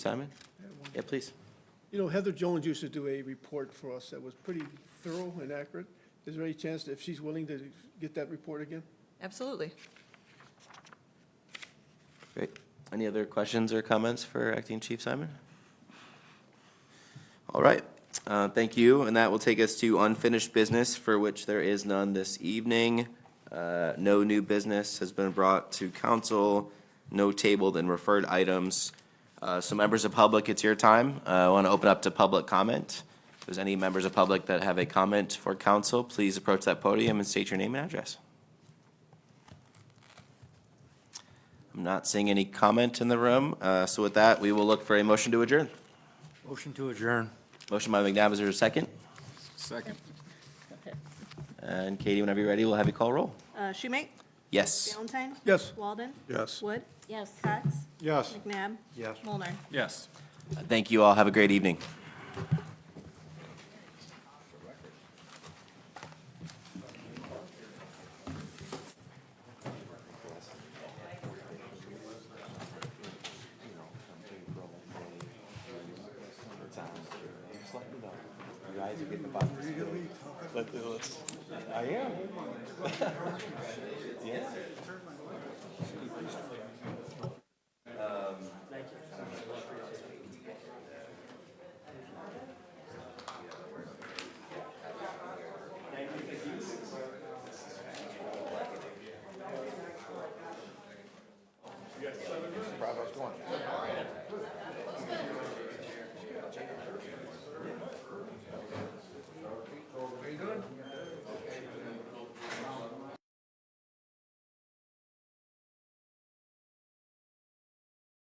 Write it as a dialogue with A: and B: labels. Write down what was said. A: Simon? Yeah, please.
B: You know, Heather Jones used to do a report for us that was pretty thorough and accurate. Is there any chance that if she's willing to get that report again?
C: Absolutely.
A: Great. Any other questions or comments for Acting Chief Simon? All right, uh, thank you, and that will take us to unfinished business, for which there is none this evening. Uh, No new business has been brought to council, no tabled and referred items. Uh, So members of public, it's your time. Uh, I want to open up to public comment. If there's any members of public that have a comment for council, please approach that podium and state your name and address. I'm not seeing any comment in the room, uh, so with that, we will look for a motion to adjourn.
D: Motion to adjourn.
A: Motion by McNabb, is there a second?
D: Second.
A: And Katie, whenever you're ready, we'll have you call roll.
E: Uh, Schumate?
A: Yes.
E: Valentine?
B: Yes.
E: Walden?
B: Yes.
E: Wood? Yes. Cox?
D: Yes.
E: McNabb?
D: Yes.
E: Mulner?
D: Yes.
A: Thank you all. Have a great evening.